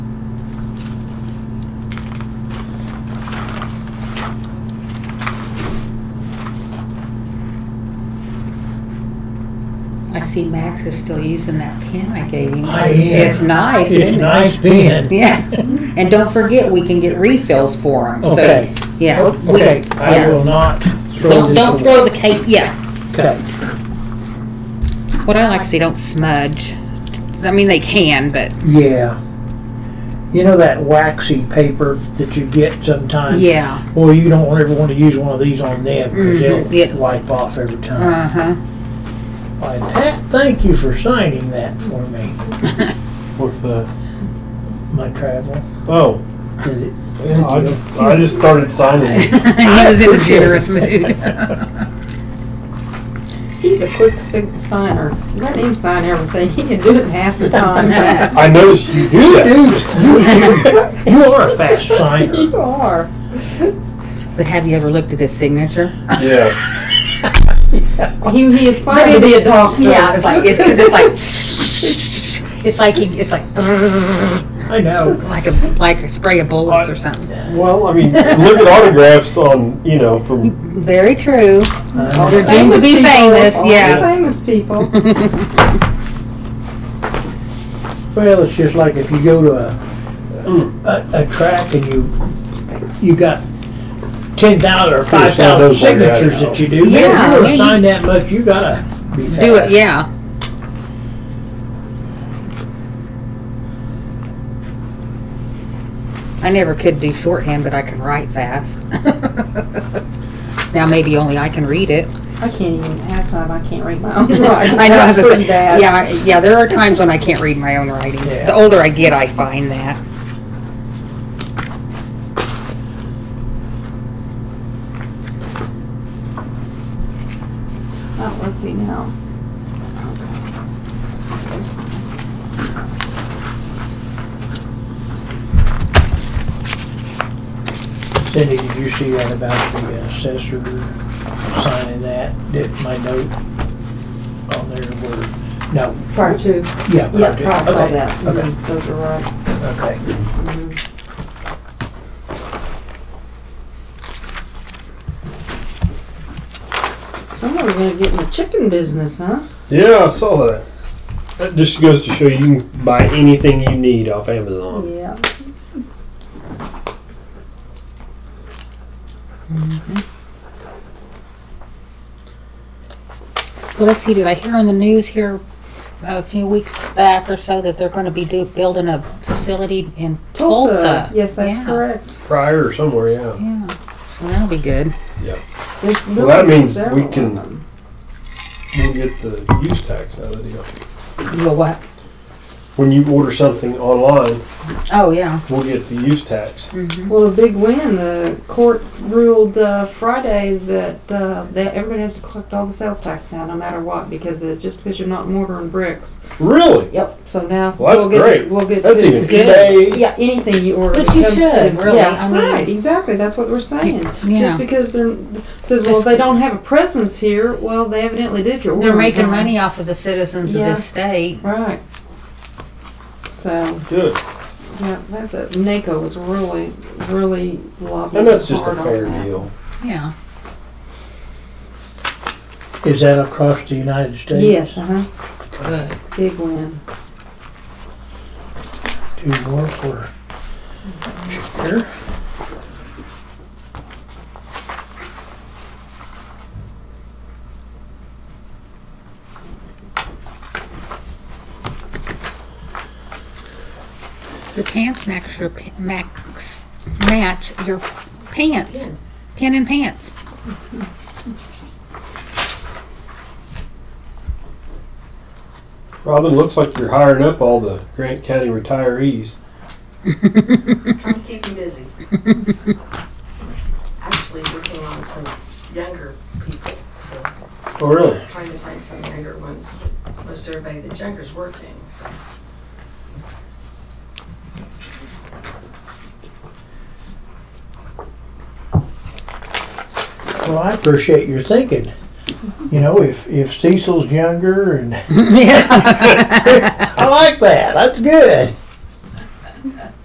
I see Max is still using that pen I gave him. I am. It's nice, It's isn't it? nice being. Yeah, and don't forget, we can get refills for them, so, Okay. Oh, yeah. we- Okay, I yeah. will not throw Don't, this don't away. throw the case, yeah. Okay. What I like to see, don't smudge. I mean, they can, but, Yeah. You know that waxy paper that you get sometimes? yeah, Well, you don't ever want to use one of these on them because Mhm, they'll yeah. wipe off every time. uh-huh. Why, Pat, thank you for signing that for me, With the, my travel. oh, Did it- yeah, I just, I just started signing. He was in a generous mood. He's a quick sig- signer. Let him sign everything. He can do it in half the time. I noticed you do that. Dude, you, you are a fast signer. you are. But have you ever looked at his signature? Yeah. He, he But aspired to be a doctor. Yeah, I was like, it's, cause it's like, it's like he, it's like, I know. like a, like a spray of bullets or something. Well, I mean, look at autographs on, you know, from, Very true. I know. We're doomed to be people. famous, All the yeah. famous people. Well, it's just like if you go to a, Hmm. a, a track and you, you got ten thousand or five thousand those like that signatures now. that you do. Yeah, Man, if yeah, you you- sign that much, you gotta be fast. Do it, yeah. I never could do shorthand, but I can write fast. Now maybe only I can read it. I can't even half time. I can't read my own writing. I know, I was That's gonna pretty say- bad. Yeah, I- yeah, there are times when I can't read my own writing. Yeah. The older I get, I find that. Oh, let's see now. Cindy, did you see that about the uh, assessor signing that? Did my note on there were, no, Part two. yeah. part Yeah, two. part saw Okay, that. Okay, Mhm, Those are right. okay. Someone's gonna get in the chicken business, huh? yeah, I saw that. That just goes to show you can buy anything you need off Amazon. Yeah. Well, let's see, did I hear on the news here a few weeks back or so that they're gonna be do, building a facility in Tulsa? Yes, that's Yeah, correct. Prior or somewhere, yeah. Yeah, so that'll be good. There's Well, that literally means several we can- of them. We'll get the use tax out of the deal. You know what? When you order something online, Oh, yeah. we'll get the use tax. Well, a big win. The court ruled uh, Friday that uh, that everybody has to collect all the sales tax now, no matter what, because it just because you're not mortar and bricks. Really? Yep. So now Well, that's we'll get great. we'll get That's to- even Good. eBay. Yeah, anything you order. But that you comes should, to- really. Yeah, I mean- right. Exactly. That's what we're saying. Yeah. Just because they're says, well, Just- they don't have a presence here. Well, they evidently do. If you're They're ordering making from 'em. money off of the citizens of Yeah. this state. Right. So. Good. Yeah, that's it. NACO was really, really lobbying And that's just a hard on fair that. deal. Yeah. Is that across the United States? Yes, uh-huh. Good. Big win. Two more for Shaker. The pants match your, pa- max, match your pants. Pin and pants. Robin, looks like you're hiring up all the Grant County retirees. Trying to keep them busy. Actually, working on some younger people, so Oh, really? trying to find some younger ones. Most everybody that's younger is working, so. Well, I appreciate your thinking. You know, if, if Cecil's younger and, Yeah. I like that, that's good.